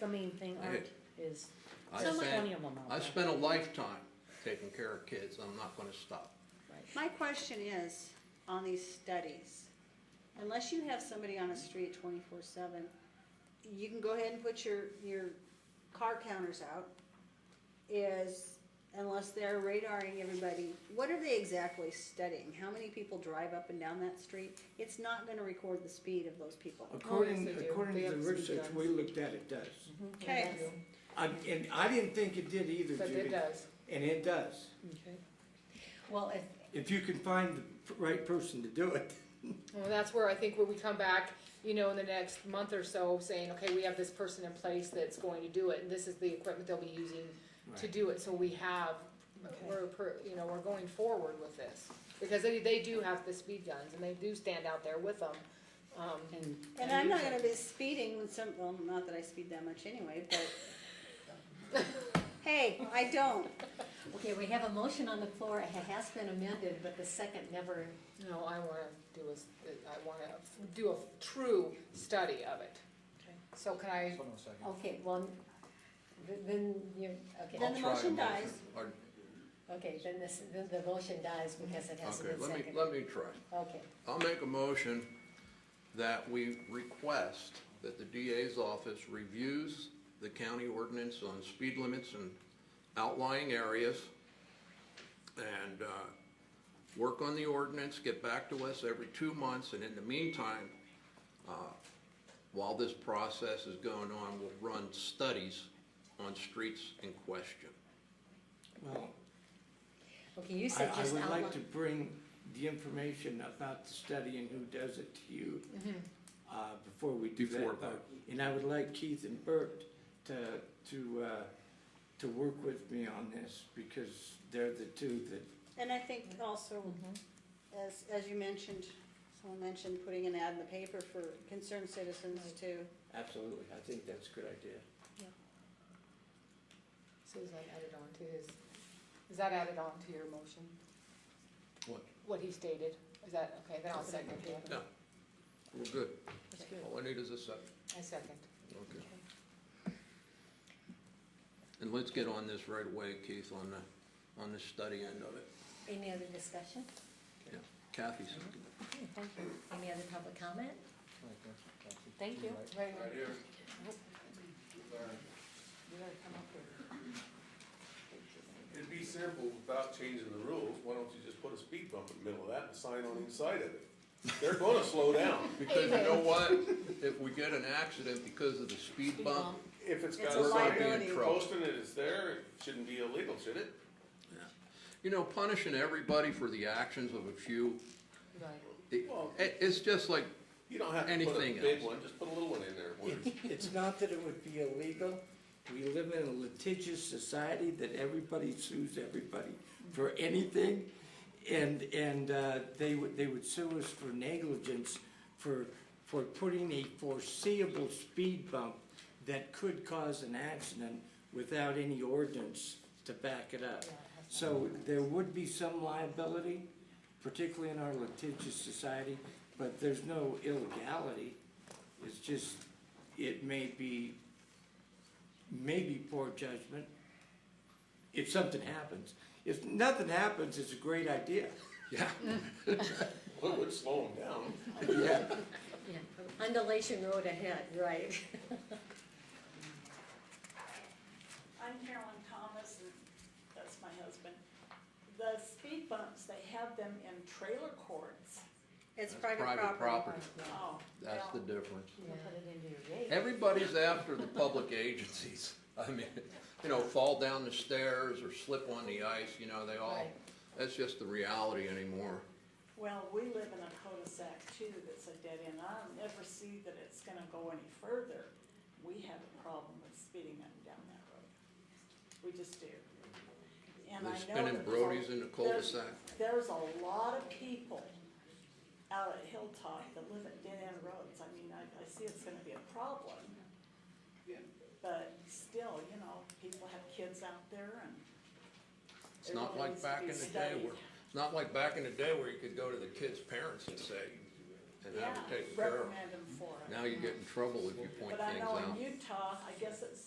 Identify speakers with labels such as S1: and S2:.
S1: the main thing, Art, is
S2: I
S1: there's
S2: spent-
S1: plenty of them out
S2: I've
S1: there.
S2: spent a lifetime taking care of kids, I'm not gonna stop.
S1: Right.
S3: My question is, on these studies, unless you have somebody on a street twenty-four seven, you can go ahead and put your, your car counters out, is, unless they're radaring everybody, what are they exactly studying? How many people drive up and down that street? It's not gonna record the speed of those people.
S4: According,
S5: they do.
S4: according
S5: They
S4: to
S5: have
S4: the
S5: some
S4: research
S5: guns.
S4: we looked at, it does.
S3: Okay,
S4: I, and I didn't think it did either,
S5: But it
S4: Judy.
S5: does.
S4: And it does.
S1: Okay. Well, if,
S4: If you can find the right person to do it.
S5: Well, that's where I think when we come back, you know, in the next month or so, saying, okay, we have this person in place that's going to do it, and this is the equipment they'll be using to do it, so we have, we're, per- you know, we're going forward with this. Because they, they do have the speed guns, and they do stand out there with them, um,
S1: and,
S3: and I'm not gonna be speeding when some, well, not that I speed that much anyway, but, hey, I don't.
S6: Okay, we have a motion on the floor, it has been amended, but the second never,
S5: no, I wanna do a, s- I wanna do a true study of it.
S1: Okay.
S5: So can I,
S6: okay, well, th- then you, okay,
S3: Then
S2: I'll
S3: the
S2: try a
S3: motion
S2: motion.
S3: dies.
S2: Or-
S6: okay, then this, then the motion dies because it hasn't
S2: Okay,
S6: been
S2: let me,
S6: seconded.
S2: let me try.
S6: Okay,
S2: I'll make a motion that we request that the DA's office reviews the county ordinance on speed limits in outlying areas and, uh, work on the ordinance, get back to us every two months, and in the meantime, uh, while this process is going on, we'll run studies on streets in question.
S4: Well,
S6: okay, you
S4: I,
S6: said
S4: I
S6: just
S4: would
S6: outline,
S4: like to bring the information about the study and who does it to you,
S5: Mm-hmm.
S4: uh, before we do
S2: Before,
S4: that part. And I would like Keith and Bert to, to, uh, to work with me on this, because they're the two that
S3: And I think also, as, as you mentioned, someone mentioned putting an ad in the paper for concerned citizens to,
S4: Absolutely, I think that's a good idea.
S5: Susan added on to his, is that added on to your motion?
S2: What?
S5: What he stated, is that, okay, then I'll second it.
S2: No. We're good.
S5: That's
S2: All I need is a second.
S5: I second.
S2: Okay. And let's get on this right away, Keith, on the, on the study end of it.
S6: any other discussion,
S2: Yeah, Kathy seconded.
S6: any other public comment?
S1: thank you.
S5: Right,
S2: here.
S7: It'd be simple without changing the rules, why don't you just put a speed bump in the middle of that and a sign on each side of it? They're gonna slow down.
S2: Because you know what? If we get an accident because of the speed bump,
S7: If it's got
S3: It's a
S7: a sign
S3: liability.
S7: posting it, it's there, it shouldn't be illegal, should it?
S2: you know, punishing everybody for the actions of a few,
S5: right.
S2: it, it- it's just like,
S7: You don't have to put a
S2: Anything
S7: big
S2: else.
S7: one, just put a little one in there. Would-
S4: It's not that it would be illegal, we live in a litigious society that everybody sues everybody for anything. And, and, uh, they would, they would sue us for negligence, for, for putting a foreseeable speed bump that could cause an accident without any ordinance to back it up. So there would be some liability, particularly in our litigious society, but there's no illegality. It's just, it may be, maybe poor judgment if something happens. If nothing happens, it's a great idea.
S2: yeah,
S7: Well, it would slow them down.
S4: Yeah.
S6: Yeah, undulation road ahead, right.
S8: I'm Carolyn Thomas, and that's my husband. The speed bumps, they have them in trailer courts.
S2: That's
S3: it's private property.
S8: Oh,
S2: That's the
S8: well,
S2: difference.
S1: You can put it into your gate.
S2: Everybody's after the public agencies. I mean, you know, fall down the stairs or slip on the ice, you know, they all,
S5: Right.
S2: that's just the reality anymore.
S8: Well, we live in a cul-de-sac too that's a dead end. I'll never see that it's gonna go any further. We have a problem with speeding up and down that road. We just do.
S2: They're
S8: And I know
S2: spinning
S8: that there's a-
S2: Brodies in the
S8: there's-
S2: cul-de-sac.
S8: There's a lot of people out at Hilltop that live at dead end roads. I mean, I, I see it's gonna be a problem. But still, you know, people have kids out there and.
S2: It's not like
S8: everything
S2: back in
S8: needs
S2: the
S8: to be
S2: day where,
S8: studied.
S2: it's not like back in the day where you could go to the kid's parents and say, and
S8: yeah,
S2: have it taken care of.
S8: reprimand them for it.
S2: Now you get in trouble if you point
S8: But I
S2: things
S8: know
S2: out.
S8: in Utah, I guess it's